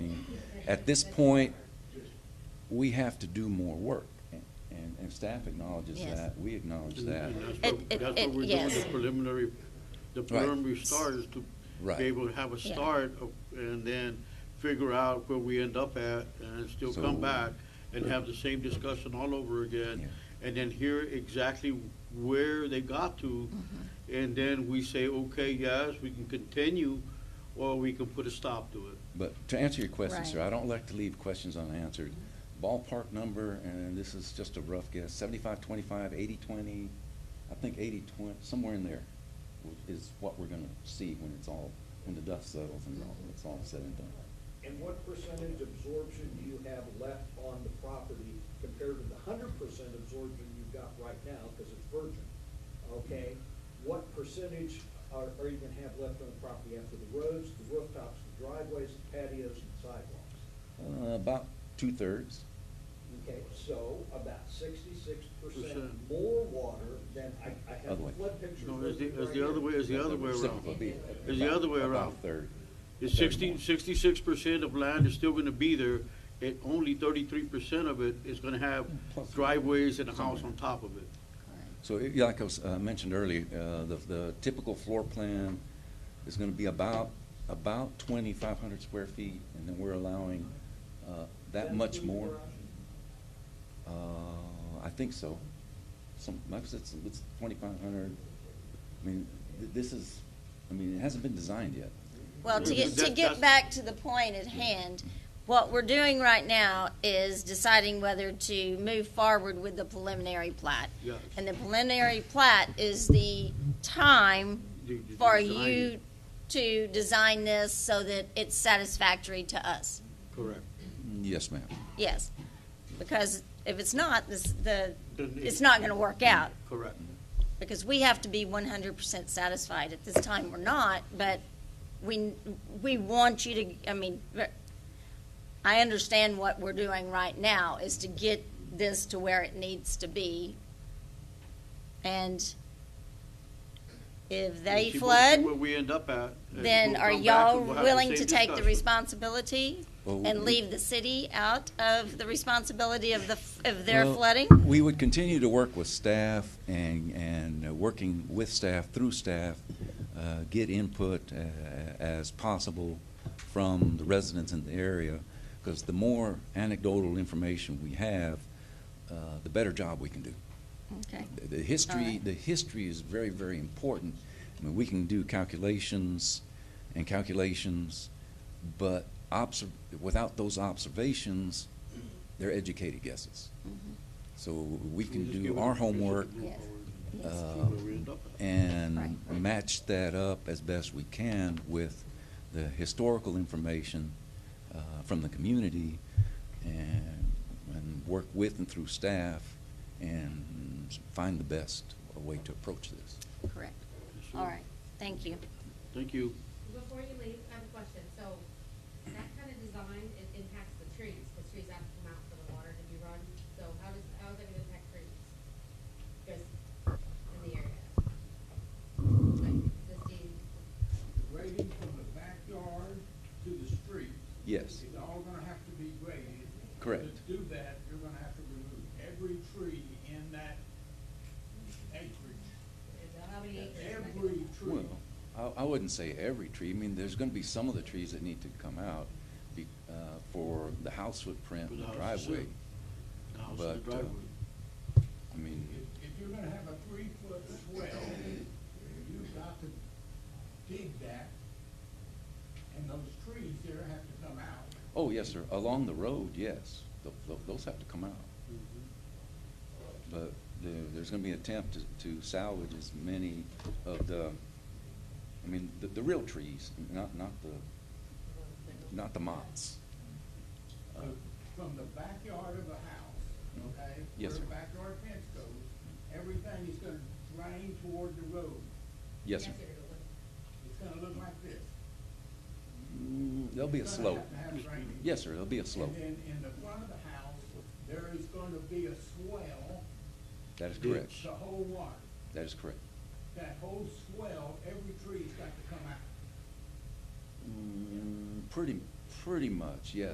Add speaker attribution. Speaker 1: At this point, we have to do more work, and, and staff acknowledges
Speaker 2: Yes.
Speaker 1: that, we acknowledge
Speaker 3: And
Speaker 1: that.
Speaker 3: and that's
Speaker 2: It-
Speaker 3: what,
Speaker 2: it-
Speaker 3: that's
Speaker 2: it-
Speaker 3: what we're doing,
Speaker 2: yes.
Speaker 3: the preliminary, the preliminary start is to
Speaker 1: Right.
Speaker 3: be able to have a
Speaker 2: Yeah.
Speaker 3: start of- and then figure out where we end up at and still
Speaker 1: So-
Speaker 3: come back and have the same discussion all over again. And then hear exactly where they got to.
Speaker 2: Mm-hmm.
Speaker 3: And then we say, okay, yes, we can continue or we can put a stop to it.
Speaker 1: But to answer your question, sir,
Speaker 2: Right.
Speaker 1: I don't like to leave questions unanswered. Ballpark number, and this is just a rough guess, seventy-five, twenty-five, eighty, twenty, I think eighty, twenty, somewhere in there is what we're gonna see when it's all, when the dust settles and all, it's all said and done.
Speaker 4: And what percentage absorption do you have left on the property compared to the hundred percent absorption you've got right now, because it's virgin? Okay, what percentage are, are you gonna have left on the property after the roads, the rooftops, the driveways, the patios, and sidewalks?
Speaker 1: Uh, about two-thirds.
Speaker 4: Okay, so about sixty-six percent
Speaker 3: Percent.
Speaker 4: more water than, I, I have
Speaker 1: Other way.
Speaker 4: the flood pictures.
Speaker 3: No, it's the-
Speaker 4: right
Speaker 3: it's the other
Speaker 4: here.
Speaker 3: way, it's the other way around.
Speaker 1: Reciprocal would be
Speaker 3: It's the other way
Speaker 1: about-
Speaker 3: around.
Speaker 1: About a third.
Speaker 3: It's sixty, sixty-six percent of land is still gonna be there, and only thirty-three percent of it is gonna have
Speaker 1: Plus-
Speaker 3: driveways and a house on top of it.
Speaker 1: So it- like I was, uh, mentioned earlier, uh, the, the typical floor plan is gonna be about, about twenty-five hundred square feet, and then we're allowing, uh, that much
Speaker 4: include the
Speaker 1: more. Uh, I think so. Some, like I said, it's, it's twenty-five hundred. I mean, th- this is, I mean, it hasn't been designed yet.
Speaker 2: Well, to get, to get
Speaker 3: That- that's-
Speaker 2: back to the point at hand, what we're doing right now is deciding whether to move forward with the preliminary plat.
Speaker 3: Yes.
Speaker 2: And the preliminary plat is the time
Speaker 3: You- you
Speaker 2: for
Speaker 3: design
Speaker 2: you
Speaker 3: it.
Speaker 2: to design this so that it's satisfactory to us.
Speaker 3: Correct.
Speaker 1: Yes, ma'am.
Speaker 2: Yes, because if it's not, this, the,
Speaker 3: Then it-
Speaker 2: it's not gonna work out.
Speaker 3: Correct.
Speaker 2: because we have to be one hundred percent satisfied. At this time, we're not, but we, we want you to, I mean, ver- I understand what we're doing right now is to get this to where it needs to be. And if
Speaker 3: We'll
Speaker 2: they
Speaker 3: see- we'll see Where
Speaker 2: flood,
Speaker 3: we end up at. and
Speaker 2: then
Speaker 3: we'll
Speaker 2: are
Speaker 3: come back
Speaker 2: y'all
Speaker 3: and we'll have
Speaker 2: willing
Speaker 3: same
Speaker 2: to take the
Speaker 3: discussion.
Speaker 2: responsibility?
Speaker 1: Well, we-
Speaker 2: And leave the city out of the responsibility of the, f- of their
Speaker 1: Well,
Speaker 2: flooding?
Speaker 1: We would continue to work with staff and, and uh, working with staff, through staff, uh, get input uh, as possible from the residents in the area, because the more anecdotal information we have, uh, the better job we can do.
Speaker 2: Okay.
Speaker 1: The- The history,
Speaker 2: right.
Speaker 1: the history is very, very important. I mean, we can do calculations and calculations, but obser- without those observations, they're educated guesses. So we
Speaker 3: We'll
Speaker 1: can
Speaker 3: just give
Speaker 1: do
Speaker 3: it
Speaker 1: our
Speaker 3: a- we'll just
Speaker 1: homework
Speaker 3: move
Speaker 2: Yes.
Speaker 3: forward.
Speaker 2: Yes.
Speaker 3: See
Speaker 1: uh,
Speaker 3: where we end up at.
Speaker 1: and
Speaker 2: Right.
Speaker 1: match that up as best we can with the historical information uh, from the community and, and work with and through staff and find the best way to approach this.
Speaker 2: Correct. All right, thank you.
Speaker 3: Thank you.
Speaker 5: Before you leave, I have a question. So that kind of design, it impacts the trees, because trees have to come out for the water to be run. So how does, how is that gonna impact trees? Just in the area? Like existing,
Speaker 6: grading from the backyard to the street.
Speaker 1: Yes.
Speaker 6: It's all gonna have to be graded.
Speaker 1: Correct.
Speaker 6: To do that, you're gonna have to remove every tree in that acreage,
Speaker 5: how many acres? am I
Speaker 6: every
Speaker 5: gonna-
Speaker 6: tree.
Speaker 1: Well, I, I wouldn't say every tree. I mean, there's gonna be some of the trees that need to come out be- uh, for the house footprint,
Speaker 3: For
Speaker 1: and
Speaker 3: the
Speaker 1: the
Speaker 3: house itself.
Speaker 1: driveway.
Speaker 3: The house and the
Speaker 1: But, uh,
Speaker 3: driveway.
Speaker 1: I mean,
Speaker 6: If, if you're gonna have a three-foot swell, you've got to dig that, and those trees there have to come out.
Speaker 1: oh, yes, sir, along the road, yes, Tho- tho- those have to come out. But there, there's gonna be an attempt to- to salvage as many of the, I mean, the, the real trees, not, not the, not the mott's.
Speaker 6: So, From the backyard of a house, okay?
Speaker 1: Yes, sir.
Speaker 6: Where the backyard fence goes, everything is gonna drain toward the road.
Speaker 1: Yes, sir.
Speaker 5: it would.
Speaker 6: It's gonna look like this.
Speaker 1: Mm, There'll be a
Speaker 6: It's gonna
Speaker 1: slope.
Speaker 6: have to have drainage.
Speaker 1: Yes, sir, there'll be a slope.
Speaker 6: And then in the front of the house, there is gonna be a swell
Speaker 1: That is correct.
Speaker 6: to hold water.
Speaker 1: That is correct.
Speaker 6: That whole swell, every tree's got to come out.
Speaker 1: Mm, Pretty, pretty much, yes.